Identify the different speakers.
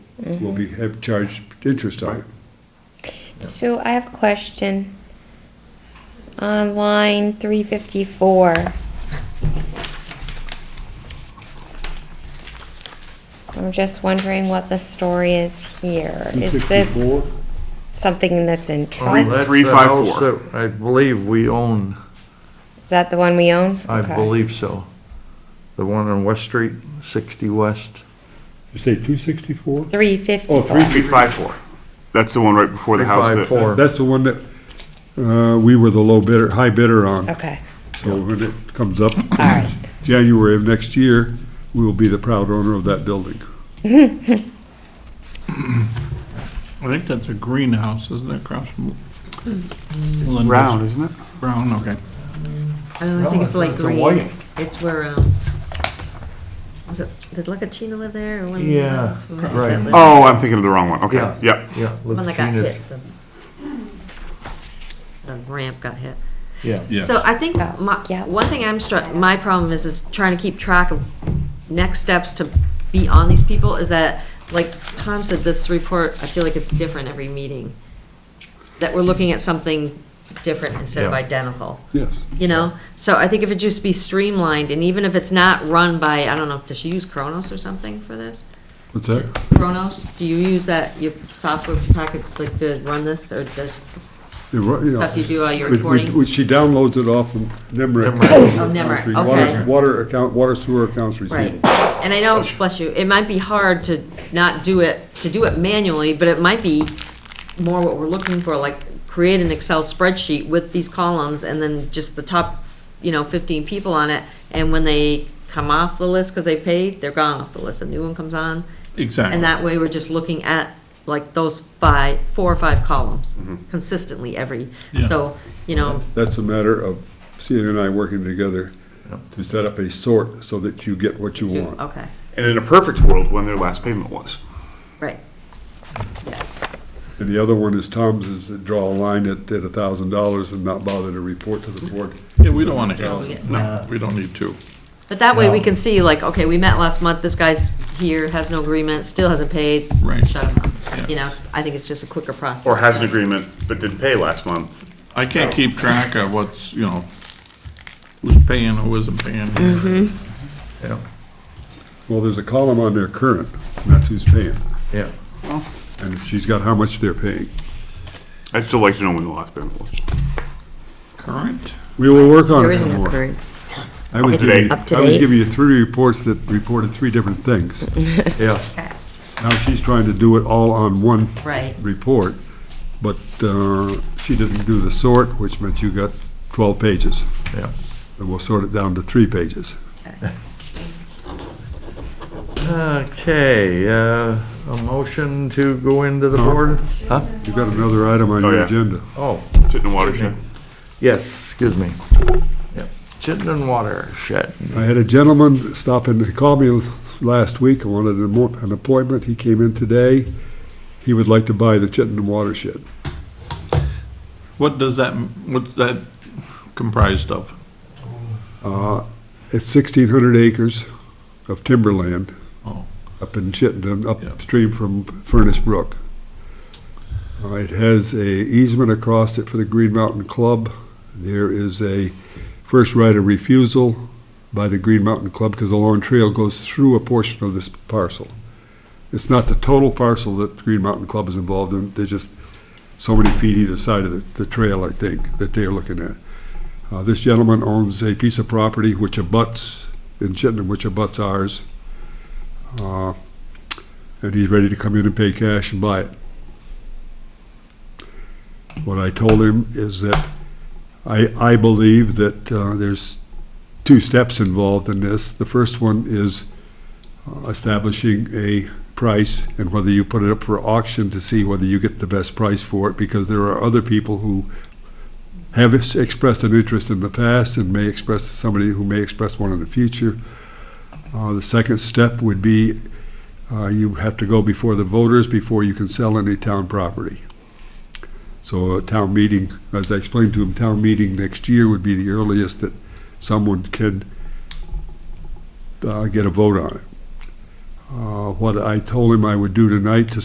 Speaker 1: will be, have charged interest on it.
Speaker 2: So I have a question. On line three fifty-four. I'm just wondering what the story is here. Is this
Speaker 1: 264?
Speaker 2: something that's in
Speaker 3: Three-
Speaker 2: trust?
Speaker 3: three, five, four.
Speaker 4: That's the house that I believe we own,
Speaker 2: Is that the one we own?
Speaker 4: I
Speaker 2: Okay.
Speaker 4: believe so. The one on West Street, sixty West.
Speaker 1: You say two sixty-four?
Speaker 2: Three
Speaker 1: Oh, three
Speaker 2: fifty-four.
Speaker 3: Three, five, four. That's the one right before the house that.
Speaker 4: 354.
Speaker 1: That's the one that, uh, we were the low bidder, high bidder on.
Speaker 2: Okay,
Speaker 1: So when it comes up,
Speaker 2: all right.
Speaker 1: January of next year, we will be the proud owner of that building.
Speaker 5: I think that's a greenhouse, isn't it, across from? Linda's?
Speaker 3: Round, isn't it?
Speaker 5: Brown, okay.
Speaker 6: Oh, I think it's
Speaker 4: No,
Speaker 6: light
Speaker 4: it's a white.
Speaker 6: green. It's where, um, was it, did Lucatina live there or one? of the
Speaker 4: Yeah,
Speaker 6: others? Who was it that
Speaker 4: right.
Speaker 6: lived-
Speaker 3: Oh, I'm thinking of the wrong one. Okay,
Speaker 4: Yeah.
Speaker 3: yep.
Speaker 4: Yeah.
Speaker 6: One that got
Speaker 4: Lucatina's-
Speaker 6: hit. the- The ramp got hit.
Speaker 4: Yeah.
Speaker 5: Yeah.
Speaker 6: So I think
Speaker 2: Oh,
Speaker 6: my,
Speaker 2: yeah.
Speaker 6: one thing I'm struck, my problem is, is trying to keep track of next steps to be on these people is that, like Tom said, this report, I feel like it's different every meeting. That we're looking at something different instead of
Speaker 4: Yeah.
Speaker 6: identical.
Speaker 1: Yes.
Speaker 6: you know? So I think if it just be streamlined, and even if it's not run by, I don't know, does she use Kronos or something for this?
Speaker 1: What's that?
Speaker 6: Kronos, do you use that, your software package, like to run this, or does
Speaker 1: You're right, yeah.
Speaker 6: stuff you do all your
Speaker 1: We- we-
Speaker 6: reporting?
Speaker 1: we- She downloads it off of NIMRIC.
Speaker 6: Oh, Nemrick,
Speaker 1: Water-
Speaker 6: okay.
Speaker 1: Water account, water sewer accounts
Speaker 6: Right,
Speaker 1: receivable.
Speaker 6: and I know, bless you, it might be hard to not do it, to do it manually, but it might be more what we're looking for, like, create an Excel spreadsheet with these columns, and then just the top, you know, fifteen people on it, and when they come off the list, cause they paid, they're gone off the list, a new one comes on, and
Speaker 5: Exactly.
Speaker 6: that way, we're just looking at like those five, four or five columns
Speaker 3: Mm-hmm.
Speaker 6: consistently every,
Speaker 5: Yeah.
Speaker 6: so, you know,
Speaker 1: That's a matter of Sienna and I working together to set up a sort so that you get what you
Speaker 6: do-
Speaker 1: want.
Speaker 6: okay,
Speaker 3: And in a perfect world, when their last payment was.
Speaker 6: right. Yeah,
Speaker 1: And the other one is Tom's, is to draw a line at, at a thousand dollars and not bother to report to the board.
Speaker 5: Yeah, we don't want to
Speaker 6: so we
Speaker 5: have,
Speaker 6: get-
Speaker 5: no, we don't need to.
Speaker 6: But that way, we can see like, okay, we met last month, this guy's here, has no agreement, still hasn't paid.
Speaker 5: Right.
Speaker 6: Shut him
Speaker 5: Yeah.
Speaker 6: up, you know, I think it's just a quicker process.
Speaker 3: Or has an agreement, but didn't pay last month.
Speaker 5: I can't keep track of what's, you know, who's paying, who isn't
Speaker 6: Mm-hmm.
Speaker 5: paying.
Speaker 4: Yeah,
Speaker 1: Well, there's a column on there, current, and that's who's paying.
Speaker 4: yeah.
Speaker 1: And she's got how much they're paying.
Speaker 3: I'd still like to know when the last payment was.
Speaker 5: Current?
Speaker 1: We will work on
Speaker 6: There
Speaker 1: it
Speaker 6: isn't
Speaker 1: some
Speaker 6: a
Speaker 1: more.
Speaker 6: current.
Speaker 1: I was
Speaker 3: Up to
Speaker 1: giving,
Speaker 3: date.
Speaker 1: you-
Speaker 6: Up to
Speaker 1: I was
Speaker 6: date.
Speaker 1: giving you three reports that reported three different things. Yeah. Now she's trying to do it all on one
Speaker 6: Right,
Speaker 1: report, but uh, she didn't do the sort, which meant you got 12 pages.
Speaker 4: Yeah.
Speaker 1: And we'll sort it down to three pages.
Speaker 4: Okay, uh, a motion to go into the board? Huh?
Speaker 1: You've got another item on
Speaker 3: Oh,
Speaker 1: your
Speaker 3: yeah.
Speaker 1: agenda.
Speaker 4: Oh,
Speaker 3: Chittenden Watershed.
Speaker 4: yes, excuse me. Yep. Chittenden Watershed.
Speaker 1: I had a gentleman stop and he called me last week, I wanted an mo- an appointment, he came in today, he would like to buy the Chittenden watershed.
Speaker 5: What does that, what's that comprised of?
Speaker 1: Uh, It's sixteen hundred acres of timberland
Speaker 5: Oh,
Speaker 1: up in Chittenden,
Speaker 5: Yeah.
Speaker 1: upstream from Furnace Brook. Uh, It has a easement across it for the Green Mountain Club. There is a first right of refusal by the Green Mountain Club because the Lone Trail goes through a portion of this parcel. It's not the total parcel that Green Mountain Club is involved in, there's just so many feet either side of the, the trail, I think, that they are looking at. Uh, this gentleman owns a piece of property which abuts, in Chittenden, which abuts ours. Uh, and he's ready to come in and pay cash and buy it. What I told him is that I, I believe that uh, there's two steps involved in this. The first one is uh, establishing a price and whether you put it up for auction to see whether you get the best price for it, because there are other people who have ex- expressed an interest in the past and may express, somebody who may express one in the future. Uh, The second step would be uh, you have to go before the voters before you can sell any town property. So a town meeting, as I explained to him, town meeting next year would be the earliest that someone can uh, get a vote on it. uh, what I told him I would do tonight to